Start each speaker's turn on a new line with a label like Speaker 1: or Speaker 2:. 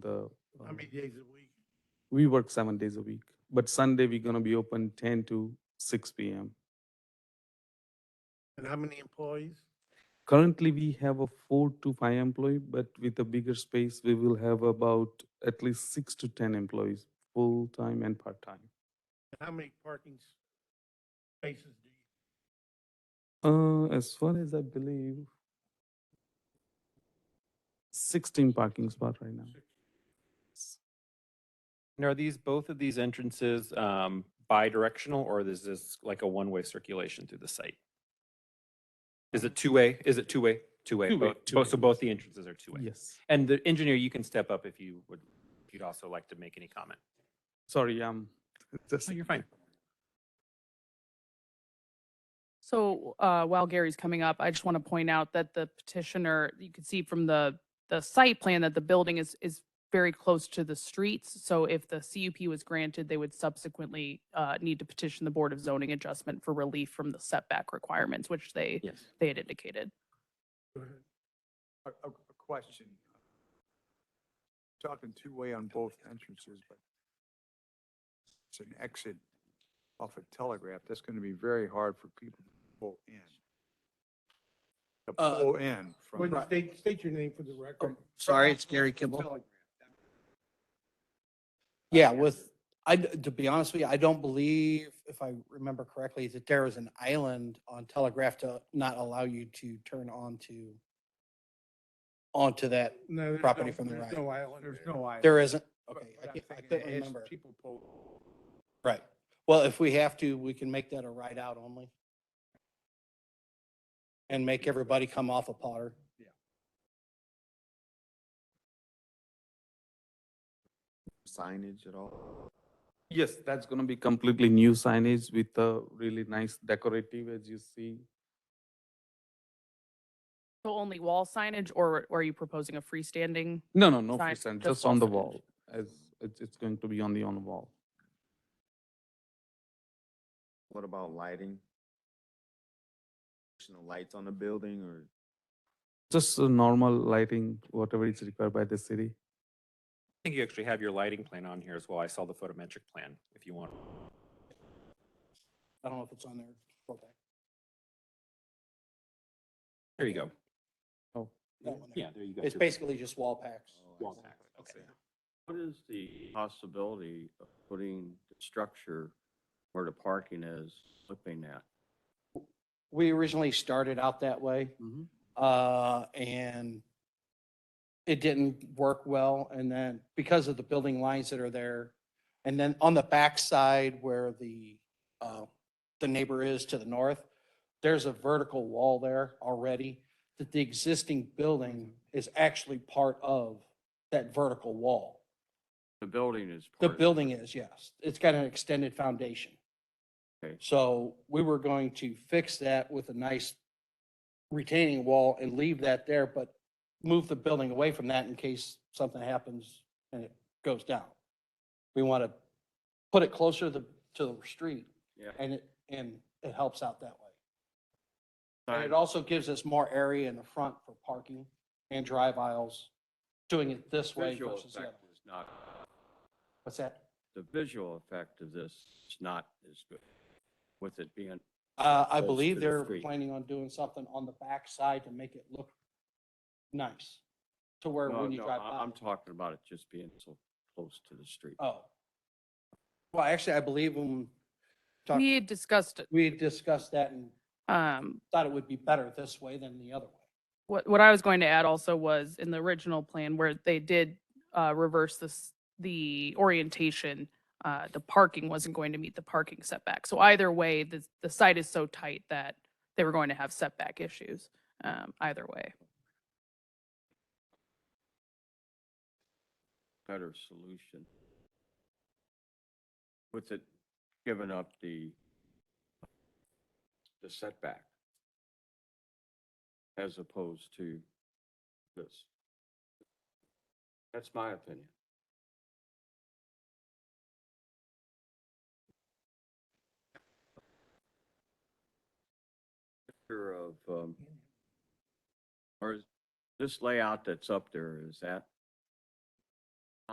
Speaker 1: the,
Speaker 2: How
Speaker 1: um,
Speaker 2: many days a week?
Speaker 1: we work seven days a week, but Sunday we're gonna be open ten to six P M.
Speaker 2: And how many employees?
Speaker 1: Currently, we have a four to five employee, but with a bigger space, we will have about at least six to ten employees, full-time and part-time.
Speaker 2: And how many parking s- spaces do you?
Speaker 1: Uh, as far as I believe, sixteen parking spot right now.
Speaker 3: And are these, both of these entrances um, bi-directional or is this like a one-way circulation through the site? Is it two-way? Is it two-way? Two-way.
Speaker 1: Two-way,
Speaker 3: both- both- So
Speaker 1: two-way.
Speaker 3: both the entrances are two-way?
Speaker 1: Yes.
Speaker 3: And the engineer, you can step up if you would, if you'd also like to make any comment.
Speaker 1: Sorry, um, just,
Speaker 3: So you're fine.
Speaker 4: So uh, while Gary's coming up, I just want to point out that the petitioner, you can see from the, the site plan that the building is, is very close to the streets. So if the CUP was granted, they would subsequently uh, need to petition the Board of Zoning Adjustment for relief from the setback requirements, which they,
Speaker 3: Yes.
Speaker 4: they had indicated.
Speaker 2: Go ahead.
Speaker 5: A, a a question. Talking two-way on both entrances, but it's an exit off a telegraph. That's gonna be very hard for people to pull in. To
Speaker 6: Uh,
Speaker 5: pull in
Speaker 2: Well,
Speaker 5: from,
Speaker 2: State, state your name for the record.
Speaker 6: Oh, Sorry, it's Gary Kimball. Yeah, with, I, d- to be honest with you, I don't believe, if I remember correctly, that there was an island on Telegraph to not allow you to turn onto, onto that.
Speaker 2: No, there's
Speaker 6: Property
Speaker 2: no-
Speaker 6: from the
Speaker 2: there's
Speaker 6: right.
Speaker 2: no island
Speaker 5: there's
Speaker 2: there.
Speaker 5: no island.
Speaker 6: There isn't,
Speaker 5: But
Speaker 6: okay, I
Speaker 5: what I'm
Speaker 6: can't, I
Speaker 5: thinking
Speaker 6: couldn't
Speaker 5: is
Speaker 6: remember.
Speaker 5: People pull,
Speaker 6: Right. Well, if we have to, we can make that a ride out only. And make everybody come off of Potter.
Speaker 7: signage at all?
Speaker 1: yes, that's gonna be completely new signage with a really nice decorative, as you see.
Speaker 4: So only wall signage or or are you proposing a freestanding?
Speaker 1: No, no, no
Speaker 4: Sign-
Speaker 1: freestanding,
Speaker 4: just
Speaker 1: just on the
Speaker 4: wall signage.
Speaker 1: wall, as, it's, it's going to be on the, on the wall.
Speaker 7: What about lighting? Additional lights on the building or
Speaker 1: Just a normal lighting, whatever is required by the city.
Speaker 3: I think you actually have your lighting plan on here as well. I saw the photometric plan if you want.
Speaker 6: I don't know if it's on there. Okay,
Speaker 3: There you go.
Speaker 6: that one there.
Speaker 3: Yeah, there you go.
Speaker 6: It's basically just wall packs.
Speaker 5: Oh,
Speaker 3: Wall packs, okay.
Speaker 8: What is the possibility of putting the structure where the parking is looking at?
Speaker 6: we originally started out that way.
Speaker 8: Mhm.
Speaker 6: Uh, and it didn't work well. And then because of the building lines that are there, and then on the backside where the, uh, the neighbor is to the north, there's a vertical wall there already that the existing building is actually part of that vertical wall.
Speaker 8: The building is.
Speaker 6: The
Speaker 8: part of it.
Speaker 6: building is, yes. It's got an extended foundation.
Speaker 8: Okay.
Speaker 6: So we were going to fix that with a nice retaining wall and leave that there, but move the building away from that in case something happens and it goes down. We want to put it closer to, to the street
Speaker 8: Yeah.
Speaker 6: and it, and it helps out that way. And it
Speaker 8: Sign-
Speaker 6: also gives us more area in the front for parking and drive aisles, doing it this way
Speaker 8: Visual
Speaker 6: versus the other.
Speaker 8: effect is not,
Speaker 6: What's that?
Speaker 8: the visual effect of this is not as good with it being,
Speaker 6: Uh, I
Speaker 8: Close
Speaker 6: believe
Speaker 8: to the
Speaker 6: they're
Speaker 8: street.
Speaker 6: planning on doing something on the back side to make it look nice to where
Speaker 8: no,
Speaker 6: when you
Speaker 8: no,
Speaker 6: drive
Speaker 8: I-
Speaker 6: by.
Speaker 8: I'm talking about it just being so close to the street.
Speaker 6: Oh. Well, actually, I believe when talk-
Speaker 4: We had discussed
Speaker 6: we had discussed that and
Speaker 4: um,
Speaker 6: thought it would be better this way than the other way.
Speaker 4: What, what I was going to add also was in the original plan where they did uh, reverse this, the orientation, uh, the parking wasn't going to meet the parking setback. So either way, the, the site is so tight that they were going to have setback issues um, either way.
Speaker 8: better solution. With it giving up the, the setback as opposed to this. That's my opinion. Picture of, um, or is this layout that's up there, is that